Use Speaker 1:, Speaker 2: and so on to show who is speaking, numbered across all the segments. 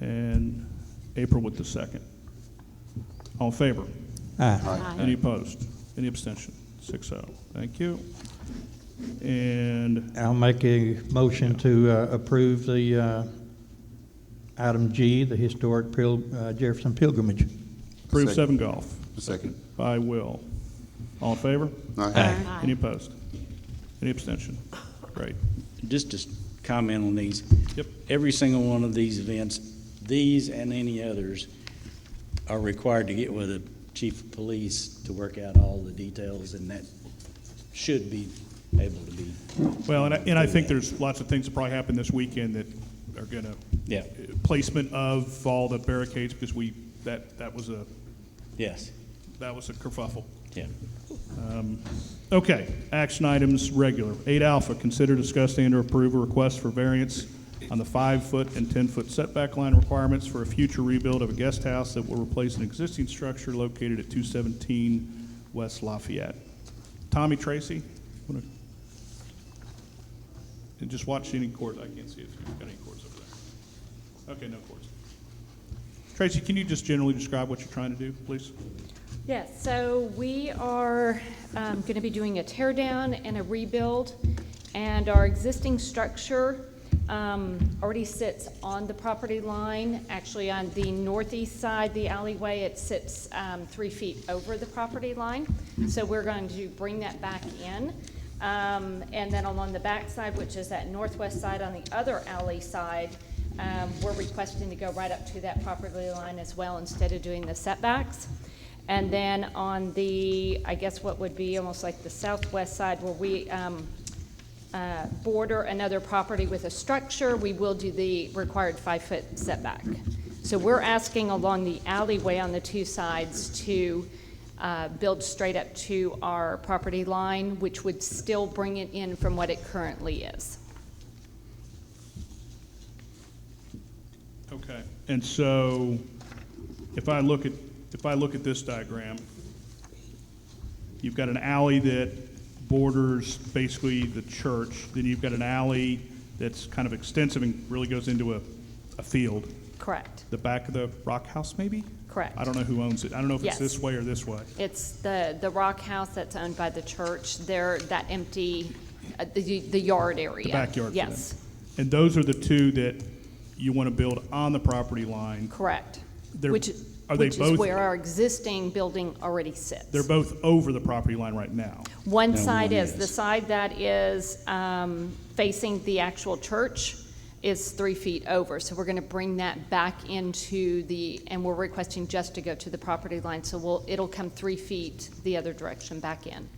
Speaker 1: and April with the second. All in favor?
Speaker 2: Aye.
Speaker 1: Any opposed? Any abstention? Six oh. Thank you. And
Speaker 2: I'll make a motion to uh, approve the uh, item G, the historic Pil- uh, Jefferson pilgrimage.
Speaker 1: approve
Speaker 3: Second.
Speaker 1: seven golf
Speaker 3: Second.
Speaker 1: by Will. All in favor?
Speaker 3: Aye.
Speaker 1: Any opposed? Any abstention? Great.
Speaker 4: Just to s- comment on these.
Speaker 1: Yep.
Speaker 4: Every single one of these events, these and any others, are required to get with the chief of police to work out all the details, and that should be able to be.
Speaker 1: Well, and I, and I think there's lots of things that probably happen this weekend that are gonna. uh,
Speaker 4: Yeah.
Speaker 1: Placement of all the barricades, because we, that, that was a,
Speaker 4: Yes,
Speaker 1: that was a kerfuffle.
Speaker 4: yeah.
Speaker 1: Okay, action items, regular. Eight alpha, consider, discuss, and/or approve a request for variance on the five-foot and ten-foot setback line requirements for a future rebuild of a guest house that will replace an existing structure located at two seventeen West Lafayette. Tommy Tracy, wanna- and just watch any cords, I can't see if you've got any cords over there. Okay, no cords. Tracy, can you just generally describe what you're trying to do, please?
Speaker 5: Yes, so we are going to be doing a tear down and a rebuild, and our existing structure um, already sits on the property line, actually on the northeast side, the alleyway, it sits um, three feet over the property line, so we're going to bring that back in. Um, And then along the back side, which is that northwest side on the other alley side, um, we're requesting to go right up to that property line as well instead of doing the setbacks. And then on the, I guess what would be almost like the southwest side where we um, uh, border another property with a structure, we will do the required five-foot setback. So we're asking along the alleyway on the two sides to uh, build straight up to our property line, which would still bring it in from what it currently is.
Speaker 1: Okay, and so if I look at, if I look at this diagram, you've got an alley that borders basically the church, then you've got an alley that's kind of extensive and really goes into a, a field,
Speaker 5: Correct.
Speaker 1: the back of the rock house maybe?
Speaker 5: Correct.
Speaker 1: I don't know who owns it. I don't know if it's
Speaker 5: Yes.
Speaker 1: this way or this way.
Speaker 5: It's the, the rock house that's owned by the church, there, that empty, uh, the the yard area.
Speaker 1: The backyard for them.
Speaker 5: Yes,
Speaker 1: And those are the two that you want to build on the property line.
Speaker 5: correct.
Speaker 1: They're-
Speaker 5: Which,
Speaker 1: are they
Speaker 5: which is
Speaker 1: both-
Speaker 5: where our existing building already sits.
Speaker 1: They're both over the property line right now.
Speaker 5: One
Speaker 4: No,
Speaker 5: side
Speaker 4: one
Speaker 5: is, the
Speaker 4: is.
Speaker 5: side that is um, facing the actual church is three feet over. So we're going to bring that back into the, and we're requesting just to go to the property line. So we'll, it'll come three feet the other direction back in.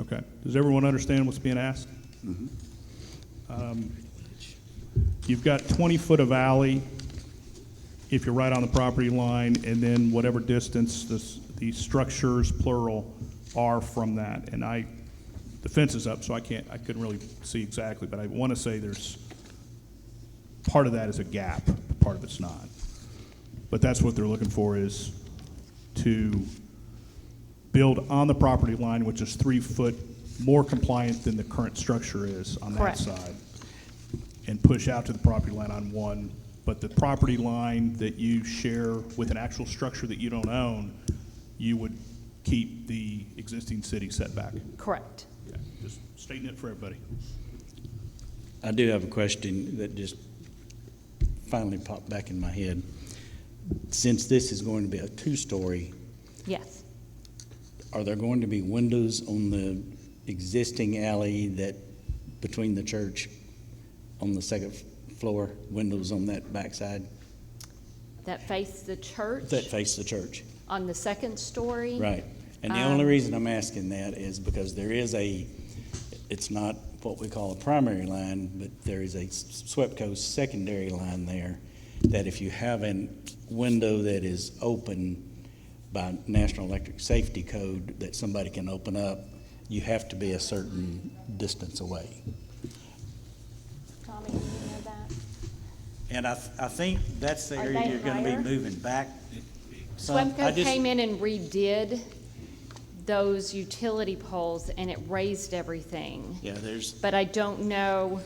Speaker 1: Okay. Does everyone understand what's being asked? Um, You've got 20-foot of alley if you're right on the property line, and then whatever distance the, s- the structures, plural, are from that. And I, the fence is up, so I can't, I couldn't really see exactly, but I want to say there's, part of that is a gap, part of it's not. But that's what they're looking for is to build on the property line, which is three foot more compliant than the current structure is on that
Speaker 5: Correct.
Speaker 1: side, and push out to the property line on one, but the property line that you share with an actual structure that you don't own, you would keep the existing city setback.
Speaker 5: Correct.
Speaker 1: Okay, Just stating it for everybody.
Speaker 4: I do have a question that just finally popped back in my head. Since this is going to be a two-story,
Speaker 5: Yes.
Speaker 4: are there going to be windows on the existing alley that, between the church, on the second f- floor, windows on that backside
Speaker 5: That face the church
Speaker 4: that face the church?
Speaker 5: on the second story.
Speaker 4: Right. And the
Speaker 5: Um,
Speaker 4: only reason I'm asking that is because there is a, it's not what we call a primary line, but there is a SWEPCO secondary line there that if you have a window that is open by National Electric Safety Code that somebody can open up, you have to be a certain distance away.
Speaker 5: Tommy, do you know that?
Speaker 4: And I, I think that's the
Speaker 5: Are
Speaker 4: area
Speaker 5: they
Speaker 4: you're gonna be
Speaker 5: higher?
Speaker 4: moving back. some. I
Speaker 5: Swimco
Speaker 4: just-
Speaker 5: came in and redid those utility poles and it raised everything.
Speaker 4: Yeah, there's,
Speaker 5: But I don't know